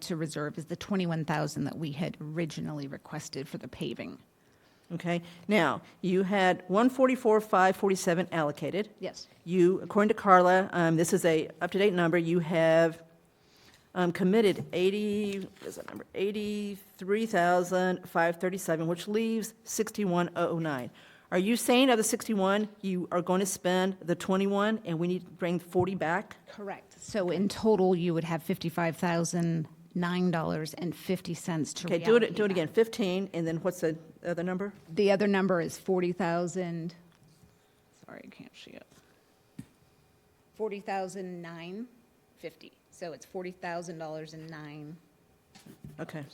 to reserve is the 21,000 that we had originally requested for the paving. Okay, now, you had 144,547 allocated. Yes. You, according to Carla, um, this is a up-to-date number, you have um, committed 80, what is that number, 83,537, which leaves 61,009. Are you saying of the 61, you are going to spend the 21, and we need to bring 40 back? Correct. So in total, you would have $55,009.50 to Okay, do reallocate it, do it that. again, 15, and then what's the other number? The other number is 40,000, sorry, I can't see it. 40,009.50. So it's $40,009.50. Okay,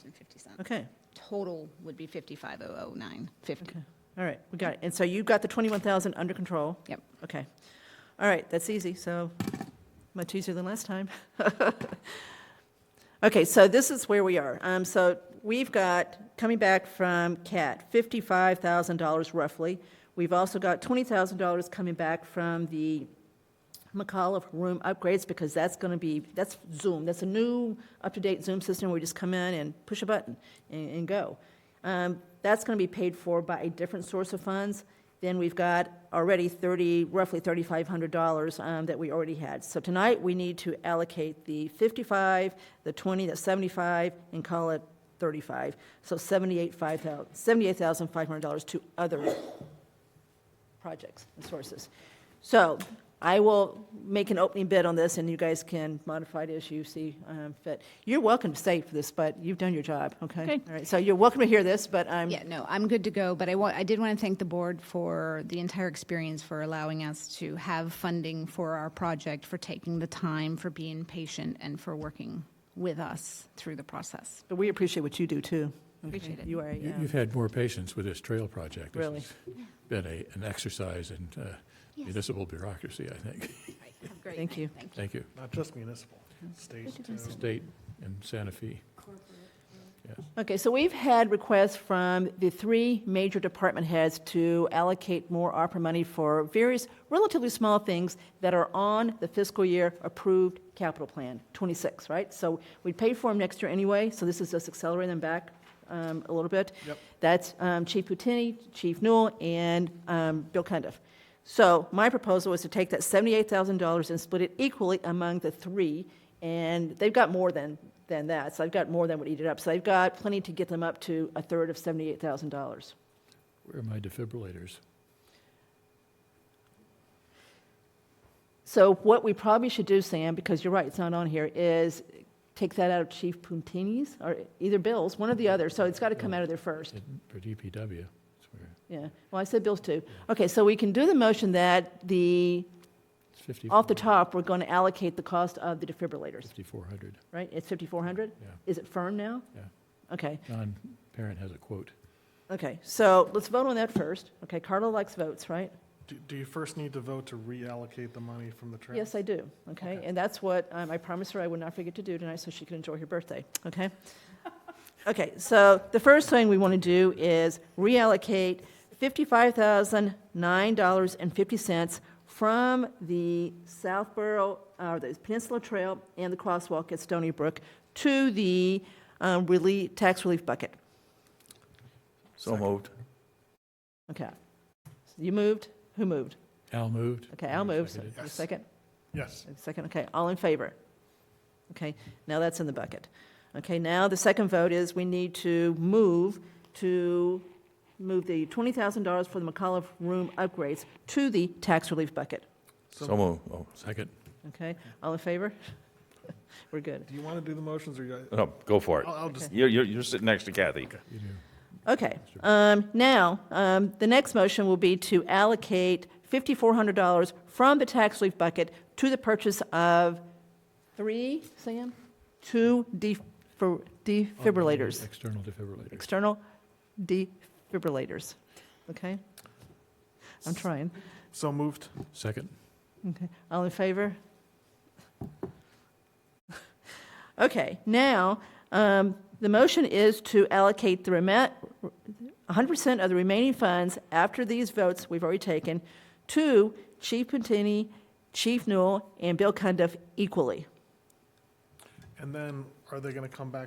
okay, Total would be 55,009.50. okay, all right, we got it. And so you've got the 21,000 under control? Yep. Okay. All right, that's easy, so much easier than last time. Okay, so this is where we are. Um, so we've got, coming back from CAT, fifty-five thousand dollars roughly. We've also got twenty thousand dollars coming back from the McAuliffe room upgrades, because that's gonna be, that's Zoom, that's a new, up-to-date Zoom system where we just come in and push a button and, and go. Um, that's gonna be paid for by a different source of funds. Then we've got already thirty, roughly thirty-five hundred dollars, um, that we already had. So tonight, we need to allocate the fifty-five, the twenty, the seventy-five, and call it thirty-five. So seventy-eight, five thousand, seventy-eight thousand, five hundred dollars to other projects and sources. So I will make an opening bid on this, and you guys can modify it as you see um, fit. You're welcome to stay for this, but you've done your job, okay? Okay. All right, so you're welcome to hear this, but I'm, Yeah, no, I'm good to go, but I want, I did want to thank the board for the entire experience, for allowing us to have funding for our project, for taking the time, for being patient, and for working with us through the process. but we appreciate what you do, too. okay? Appreciate it. You are, You- yeah. You've had more patience with this trail project. This Really. has Been a, an exercise in uh, municipal bureaucracy, I think. Thank you. Thank you. Thank you. Not just municipal, state too. State and Santa Fe. Okay, so we've had requests from the three major department heads to allocate more ARPA money for various relatively small things that are on the fiscal year approved capital plan, 26, right? So we paid for them next year anyway, so this is just accelerating them back um, a little bit. Yep. That's um, Chief Putini, Chief Newell, and um, Bill Cundiff. So my proposal is to take that $78,000 and split it equally among the three, and they've got more than, than that, so they've got more than would eat it up. So they've got plenty to get them up to a third of $78,000. Where are my defibrillators? So what we probably should do, Sam, because you're right, it's not on here, is take that out of Chief Puntini's, or either Bill's, one or the other, so it's got to come out of there first. It- For DPW. it's where- Yeah, well, I said Bill's too. Okay, so we can do the motion that the, It's 50. off the top, we're going to allocate the cost of the defibrillators, 5,400, right? It's 5,400? yeah. Is it firm now? Yeah. Okay, John Parent has a quote. okay, so let's vote on that first. Okay, Carla likes votes, right? Do- Do you first need to vote to reallocate the money from the trail? Yes, I do, okay? Okay. And that's what um, I promised her I would not forget to do tonight, so she could enjoy her birthday, okay? Okay, so the first thing we want to do is reallocate $55,009.50 from the Southborough, or the Peninsula Trail and the crosswalk at Stony Brook to the um, relief, tax relief bucket. So moved. Okay. You moved? Who moved? Al moved. Okay, Al moved. Seconded. You Yes. second? Yes. A Second, okay, all in favor? Okay, now that's in the bucket. Okay, now the second vote is we need to move to, move the $20,000 for the McAuliffe Room upgrades to the tax relief bucket. So moved. Oh, Second. Okay, all in favor? We're good. Do you want to do the motions or you? No, go for it. I'll, I'll just, You're, you're, you're sitting next to Kathy. You do. Okay, um, now, um, the next motion will be to allocate $5,400 from the tax relief bucket to the purchase of three, Sam? Two defib- defibrillators. External defibrillators. external defibrillators, okay? I'm trying. so moved. Second. Okay, all in favor? Okay, now, um, the motion is to allocate the remit, 100% of the remaining funds after these votes we've already taken to Chief Puntini, Chief Newell, and Bill Cundiff equally. And then Are they going to come back